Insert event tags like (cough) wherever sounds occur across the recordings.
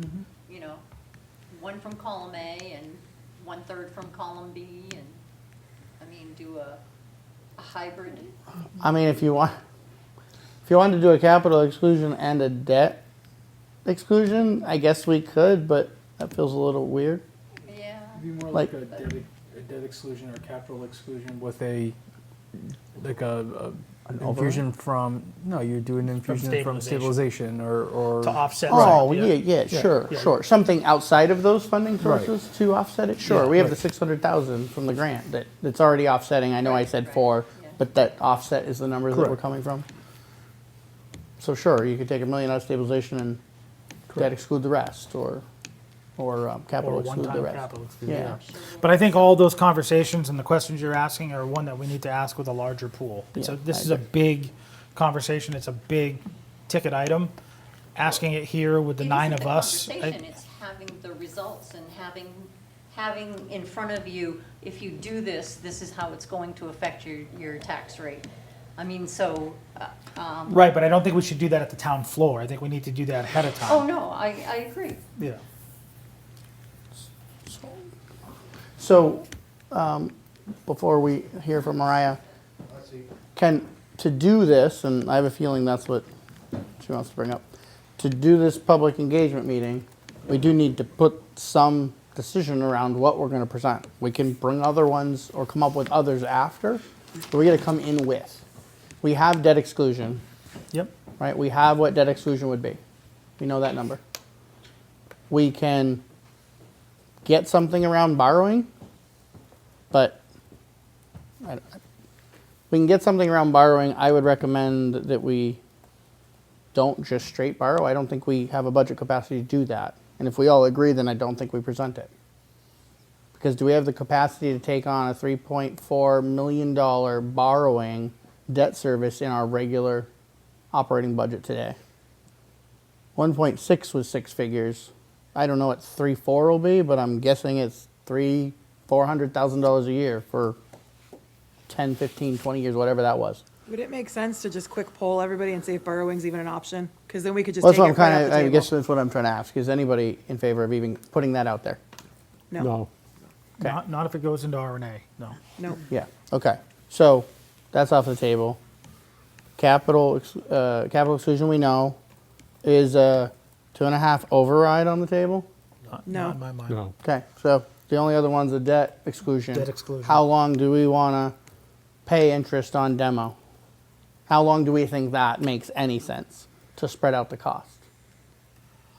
Mm-hmm. you know, one from column A and one-third from column B, and, I mean, do a, a hybrid. I mean, if you want, if you wanted to do a capital exclusion and a debt exclusion, I guess we could, but that feels a little weird. Yeah, It'd be more like a Like- debt, a debt exclusion or capital exclusion with a, like a, a- an infusion from, no, you do an infusion from stabilization or, or. to offset. Oh, right, yeah, yeah, Yeah. sure, Yeah. sure. Something outside of those funding Right. sources to offset it? Sure, Yeah, we have the right. 600,000 from the grant that, that's already offsetting. I know I Right, said right, four, yeah. but that offset is the number that we're Correct. coming from. So sure, you could take a million out of stabilization and debt Correct. exclude the rest, or, or um, Or capital a exclude the one-time rest. capital. Yeah, But I think all those conversations and the questions you're asking are one that we need to ask with a larger pool. So Yeah, I this is a big conversation, it's a big ticket item. Asking it here with the It nine isn't of the us. I- Conversation, it's having the results and having, having in front of you, if you do this, this is how it's going to affect your, your tax rate. I mean, so, uh, um, Right, but I don't think we should do that at the town floor. I think we need to do that ahead of oh, time. no, I, I agree. Yeah. So, um, before we hear from Mariah, can, to do this, and I have a feeling that's what she wants to bring up, to do this public engagement meeting, we do need to put some decision around what we're gonna present. We can bring other ones or come up with others after, but we gotta come in with. We have debt exclusion, Yep. right? We have what debt exclusion would be. We know that number. We can get something around borrowing, but I, I- we can get something around borrowing. I would recommend that we don't just straight borrow. I don't think we have a budget capacity to do that. And if we all agree, then I don't think we present it. Because do we have the capacity to take on a $3.4 million borrowing debt service in our regular operating budget today? 1.6 was six figures. I don't know what 3.4 will be, but I'm guessing it's three, four hundred thousand dollars a year for 10, 15, 20 years, whatever that was. Would it make sense to just quick poll everybody and see if borrowing's even an option? Because then we could just Well, take that's it what I'm right kind off of. the I guess uh, table. that's what I'm trying to ask. Is anybody in favor of even putting that out there? No, Not, not if it goes into RNA, no. no. Yeah. Okay. So that's off the table. Capital ex- uh, capital exclusion we know is a two and a half override on the table. Not- No. Not in my mind. No. Okay, so the only other one's a debt exclusion. Debt exclusion. How long do we want to pay interest on demo? How long do we think that makes any sense to spread out the cost?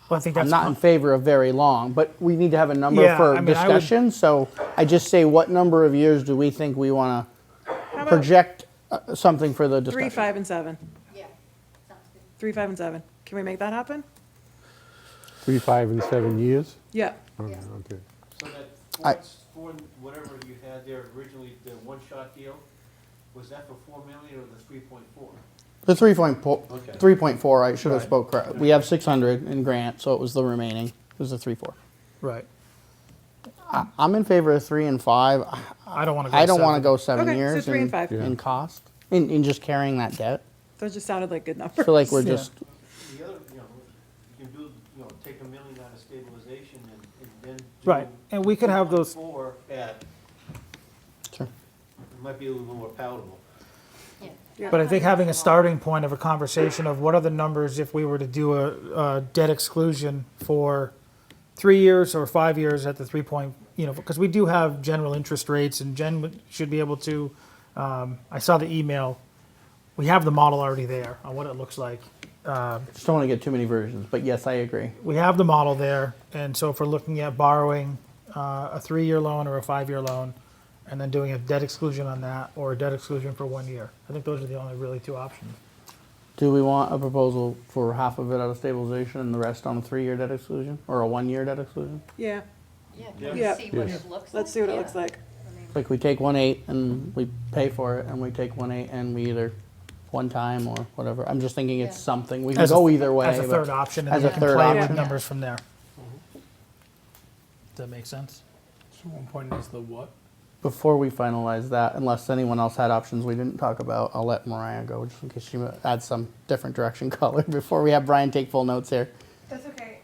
Well, I think I'm that's. not in favor of very long, but we need to have a number Yeah, for I mean, I would- discussion. so I just say, what number of years do we think we want to How about project uh, something for the discussion? three, five, and seven? Yeah, sounds good. Three, five, and seven. Can we make that happen? Three, five, and seven years? Yeah. Okay, Yeah. okay. So that I- Ford's, Ford, whatever you had there originally, the one-shot deal, was that for four million or the three point four? The three point po- Okay. three point four. I should have spoke correct. We have six hundred in grant, so it was the remaining. It was the three four. Right. I- I'm in favor of three and five. I don't want to go. I don't want to seven. go seven Okay, so years three in, and five. Yeah. in cost in, in just carrying that debt. Those just sounded like good I numbers. feel like we're Yeah. just The other, you know, you can do, you know, take a million out of stabilization and, and then do. Right, and we could have those- Four at, sure. it might be a little more palatable. Yeah. Yeah. But I think having a starting point of a conversation of what are the numbers if we were to do a, a debt exclusion for three years or five years at the three point, you know, because we do have general interest rates and Jen would- should be able to, um, I saw the email. We have the model already there on what it looks like. just don't want to get too many versions. But yes, I agree. we have the model there, and so if we're looking at borrowing uh, a three-year loan or a five-year loan, and then doing a debt exclusion on that, or a debt exclusion for one year, I think those are the only really two options. Do we want a proposal for half of it out of stabilization and the rest on a three-year debt exclusion or a one-year debt exclusion? Yeah, Yeah, Yeah. can we see what it looks like? let's see what it Yeah. looks like. I mean, Like we take one eight and we pay for it, and we take one eight and we either one time or whatever. I'm just thinking it's Yeah. something we can As a- go either way. As a but- third option, as and then a we can third play with option. numbers from there. Does that make sense? So one point is the what? Before we finalize that, unless anyone else had options we didn't talk about, I'll let Mariah (laughs) go just in case she adds some different direction color before we have Brian take full notes here. That's okay.